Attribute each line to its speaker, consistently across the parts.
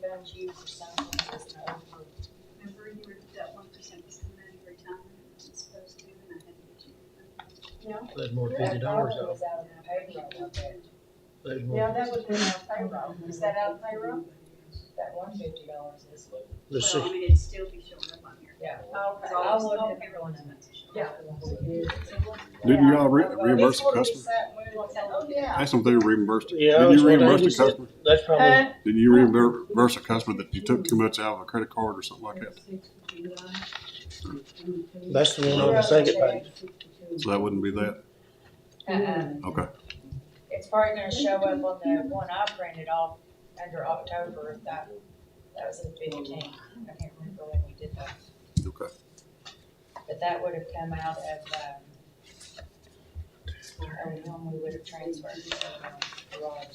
Speaker 1: charge you for something that's not approved.
Speaker 2: Remember you were, that one percent was coming out of your retirement, which was supposed to, and I had to get you.
Speaker 3: There's more
Speaker 1: Your
Speaker 3: fifty dollars
Speaker 1: payroll
Speaker 3: out,
Speaker 1: is out of payroll, okay.
Speaker 3: there's
Speaker 1: Yeah,
Speaker 3: more,
Speaker 1: that was in our payroll, is that out of payroll? That one fifty dollars is.
Speaker 3: the
Speaker 2: Well, I
Speaker 3: six,
Speaker 2: mean, it'd still be showing up on here.
Speaker 1: Yeah.
Speaker 2: It's
Speaker 1: Okay,
Speaker 2: all,
Speaker 1: I'll
Speaker 2: it's
Speaker 1: look
Speaker 2: all
Speaker 1: at.
Speaker 2: payroll expenses.
Speaker 1: Yeah.
Speaker 2: So we'll-
Speaker 4: Didn't y'all re-
Speaker 1: Yeah, this
Speaker 4: reimburse the
Speaker 1: will be
Speaker 4: customer?
Speaker 1: set, we will tell- Oh, yeah. Uh-uh.
Speaker 4: That's something you reimbursed.
Speaker 3: Yeah,
Speaker 4: Didn't
Speaker 3: that's
Speaker 4: you
Speaker 3: what
Speaker 4: reimburse
Speaker 3: they
Speaker 4: the
Speaker 3: said.
Speaker 4: customer?
Speaker 3: that's
Speaker 1: Uh,
Speaker 3: probably,
Speaker 1: Huh?
Speaker 4: Didn't you reimburse a customer that you took too much out of a credit card or something like that?
Speaker 3: that's the one on the second page.
Speaker 4: So that wouldn't be that?
Speaker 1: Uh-uh.
Speaker 4: Okay.
Speaker 1: It's probably gonna show up on the one I printed off under October, of that, that was in fifteen. I can't remember when we did that,
Speaker 4: Okay.
Speaker 1: but that would have come out of, um, or when we would have transferred to, um, Rod.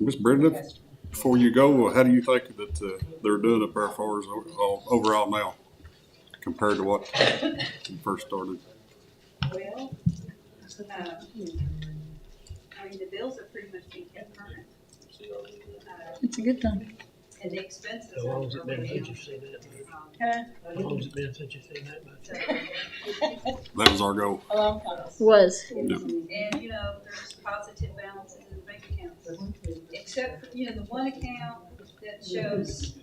Speaker 4: Ms. Brenda, before you go, how do you think that uh, they're doing up there as far as overall- overall now compared to what you first started?
Speaker 2: Well, uh, I mean, the bills are pretty much being kept current. Uh,
Speaker 5: It's a good thing.
Speaker 2: And the expenses.
Speaker 3: How
Speaker 2: are-
Speaker 3: long's it been since
Speaker 2: Um,
Speaker 3: you've seen that?
Speaker 1: Huh?
Speaker 3: How long's it been since you've seen that much?
Speaker 2: so-
Speaker 4: That was our goal.
Speaker 1: A long time.
Speaker 5: Was.
Speaker 2: And, you know, there's positive balances in the bank accounts, except, for you know, the one account that shows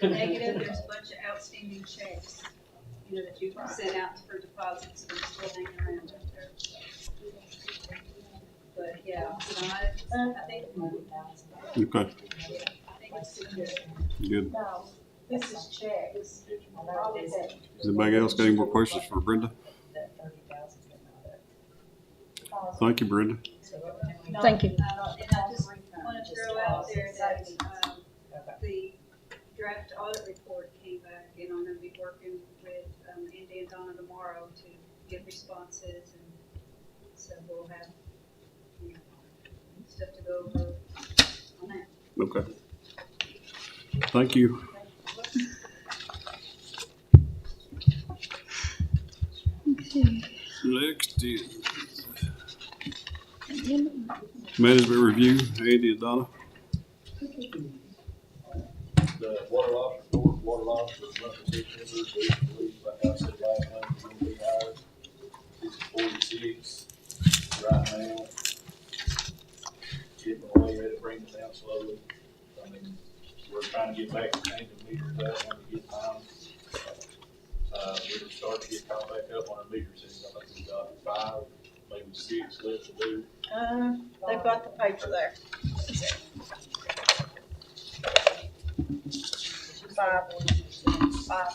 Speaker 2: negative, there's a bunch of outstanding checks, you know, that you sent out for deposits, and still hanging around out there. But, yeah, so I, I think,
Speaker 4: Okay,
Speaker 2: I think it's good.
Speaker 4: good.
Speaker 1: No, this is checks.
Speaker 4: Does anybody else got any more questions for Brenda? Thank you, Brenda.
Speaker 5: Thank you.
Speaker 2: Uh, And I just want to throw out there that, um, the draft audit report came back, and I'm gonna be working with, um, Andy and Donna tomorrow to get responses, and so we'll have, you know, stuff to go over on that.
Speaker 4: Okay. Thank you. Next is management review, Andy and Donna.
Speaker 6: the water loss report, water loss was roughly six hundred, we believe, like I said last time, it's gonna be higher. It's forty-six right now. Chipping away at it, bringing it down slowly. I mean, we're trying to get back to changing meters that when we get time. Uh, we were starting to get caught back up on our meter system. I think we got five, maybe six left to do.
Speaker 1: They've got the paper there. Five, five.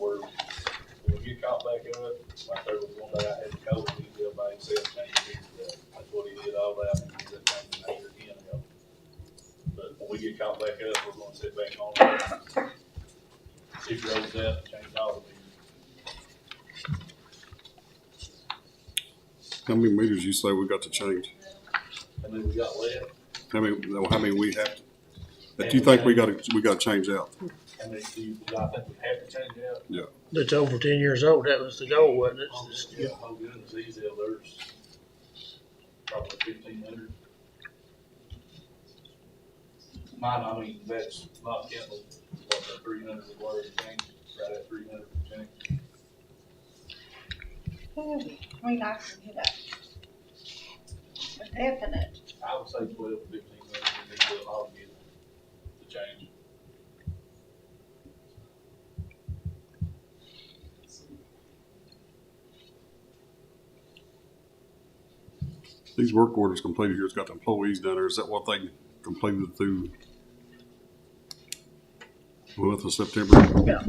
Speaker 6: We're, when we get caught back up, like there was one day I had COVID, he did by himself, changed his, uh, that's what he did all that, and he did change the name again, you know. But when we get caught back up, we're gonna sit back on. it, See if it rolls out, change all of these.
Speaker 4: How many meters you say we got to change?
Speaker 6: And then we got left,
Speaker 4: How many, no, how many we have, to- that you think we gotta, we gotta change out?
Speaker 6: and then you, I think we have to change out.
Speaker 3: That's over ten years old, that was the goal, wasn't it?
Speaker 6: Oh, yeah, oh, goodness, these there's probably fifteen hundred. Mine, I mean, that's not counting what the three hundred is worth, I think, right at three hundred, I think.
Speaker 1: I mean, I can hit that. Definite.
Speaker 6: I would say twelve, fifteen hundred, and then we'll all get the change.
Speaker 4: These work orders completed here, it's got the employees down there, is that what they completed through the month of September?
Speaker 3: Yeah.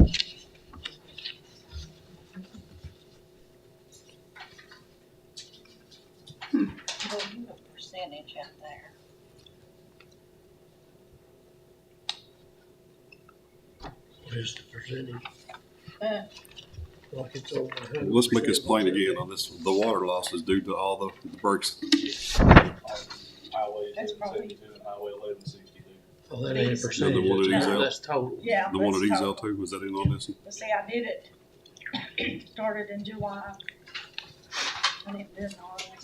Speaker 1: Well, you have a percentage out there.
Speaker 3: What is the percentage?
Speaker 1: Uh.
Speaker 3: Like it's over. a hundred
Speaker 4: Let's make this
Speaker 3: percent.
Speaker 4: plain again on this, the water loss is due to all the breaks.
Speaker 6: on Highway
Speaker 1: That's probably-
Speaker 6: seventy-two and highway eleven sixty-two.
Speaker 3: Oh, that ain't a percentage.
Speaker 4: Another one of these
Speaker 3: that's-
Speaker 4: out.
Speaker 3: That's total.
Speaker 7: Yeah.
Speaker 4: The one of
Speaker 7: let's
Speaker 4: these
Speaker 7: talk.
Speaker 4: out too, was that in on this?
Speaker 7: But see, I did it, started in July. And it didn't all the way